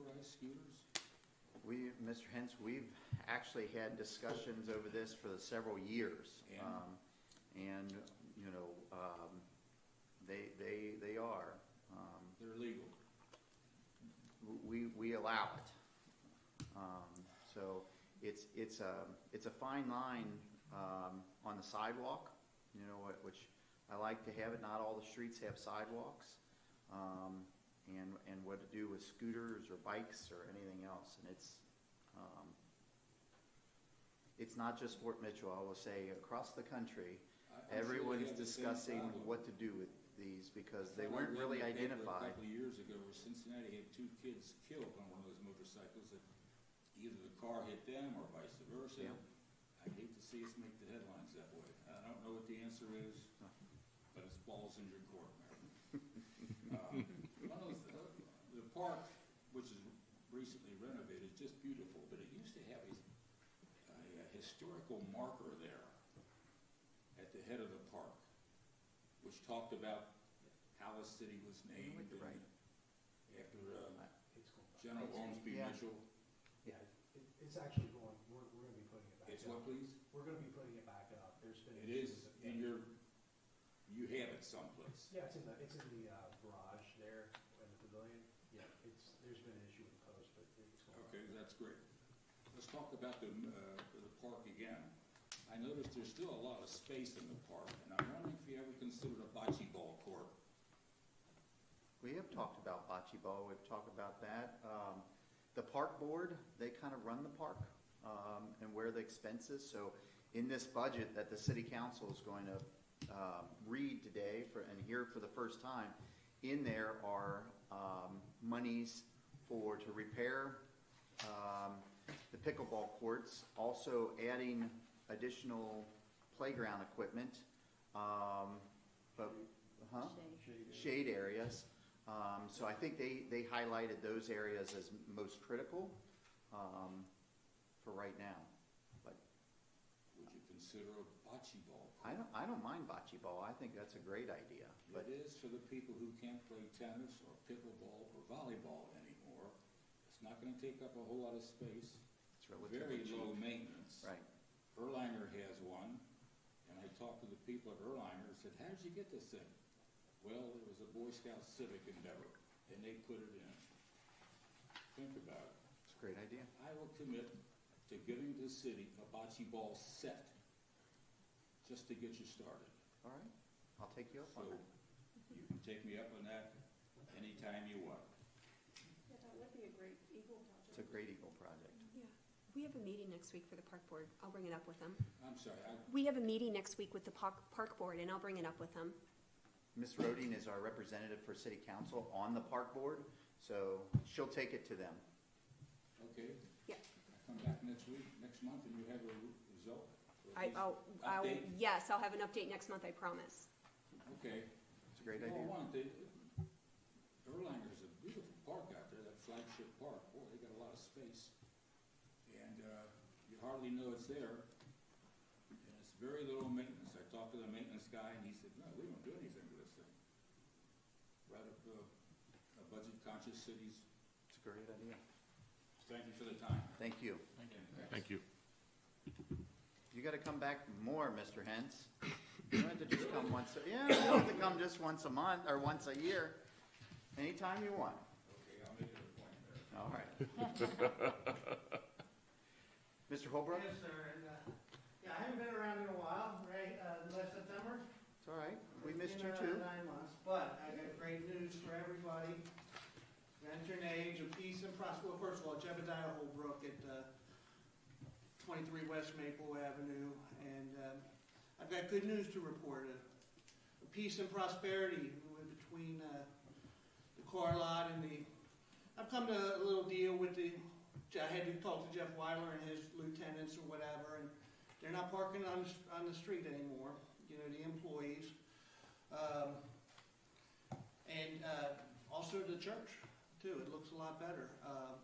prosecutors? We, Mr. Hens, we've actually had discussions over this for several years. Yeah. Um, And, you know, um, they, they, they are, um, They're legal. we, we allow it. Um, So it's, it's a, it's a fine line um, on the sidewalk, you know, wh- which I like to have it, not all the streets have sidewalks. um, And, and what to do with scooters or bikes or anything else, and it's, um, it's not just Fort Mitchell, I will say, across the I- country, I'm sure they everyone is have the same discussing problem. what to do with these I because they know weren't we really had a paper A identified. couple of years ago, where Cincinnati had two kids killed on one of those motorcycles, that either the car hit them or vice versa. Yeah. I hate to see us make the headlines that way. I don't know what the answer is, No. but it's balls in your court, Mayor. Um, one of those- uh, The park, which is recently renovated, is just beautiful, but it used to have a, a historical marker there at the head of the park, which talked about how the city was named. went to and right. After, uh, General Ormsby Yeah. Mitchell, Yeah, it, it's actually going, we're, we're gonna be putting it back it's up. what, please? We're gonna be putting it back up, there's been. It is, issues with- and you're, you have it someplace. Yeah, it's in the, it's in the, uh, garage there, in the pavilion, yeah, it's, there's been an issue with the post, but it's going. Okay, that's great. Let's talk about the, uh, the park again. I noticed there's still a lot of space in the park, and I'm wondering if you ever considered a bocce ball court. We have talked about bocce ball, we've talked about that. Um, the park board, they kind of run the park, um, and where the expenses, so in this budget that the city council is going to, um, read today for, and hear for the first time, in there are, um, monies for, to repair, um, the pickleball courts, also adding additional playground equipment, um, but, huh? shade areas. Um, so I think they, they highlighted those areas as most critical, um, for right now. But Would you consider a bocce ball court? I don't, I don't mind bocce ball. I think that's a great idea. But It is for the people who can't play tennis or pickleball or volleyball anymore. It's not gonna take up a whole lot of space, it's very relatively low cheap. maintenance. Right. Erlanger has one, and I talked to the people at Erlanger, and said, how did you get this thing? Well, it was a Boy Scout civic endeavor, and they put it in. Think about it. It's a great idea. I will commit to giving the city a bocce ball set, just to get you started. All right. I'll take you up So, on it. you can take me up on that anytime you want. Yeah, that would be a great Eagle It's a great Eagle project. Yeah, we have a meeting next week for the park board. I'll bring it up with them. I'm sorry, I, We have a meeting next week with the park, park board and I'll bring it up with them. Ms. Roding is our representative for city council on the park board, so she'll take it to them. okay, Yeah, I come back next week, next month, and you have a re- result? or at I, least oh, I'll, update? yes, I'll have an update next month, I promise. Okay. It's a great Well, idea. one, they, Erlanger's a beautiful park out there, that flagship park, boy, they got a lot of space. And, uh, you hardly know it's there, and it's very little maintenance, I talked to the maintenance guy, and he said, no, we don't do anything with this thing. Right up, uh, a budget conscious cities, It's a great idea. thank you for the time. Thank you. Thank you. You gotta come back more, Mr. Hens. You don't have to just come once, a yeah, you don't have to come just once a month or once a year, anytime you want. Okay, I'll make it a point there. All right. Mr. Holbrook, Yes, sir, and, uh, yeah, I haven't been around in a while, right, uh, last September. it's all right, we missed Been you too. around Nine months, but I got great news for everybody. Enter an age of peace and prosperity, well, first of all, Jebediah Holbrook at, uh, twenty-three West Maple Avenue, and, um, I've got good news to report, uh, peace and prosperity between, uh, the car lot and the, I've come to a little deal with the, I had to talk to Jeff Weiler and his lieutenants or whatever, and they're not parking on, the s- on the street anymore, you know, the employees. Um, and, uh, also the church too, it looks a lot better. Um,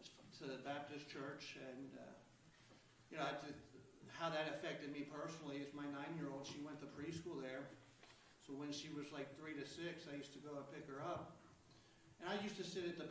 it's it's a Baptist church and, uh, you know, I just, how that affected me personally is my nine-year-old, she went to preschool there. So when she was like three to six, I used to go and pick her up. And I used to sit at the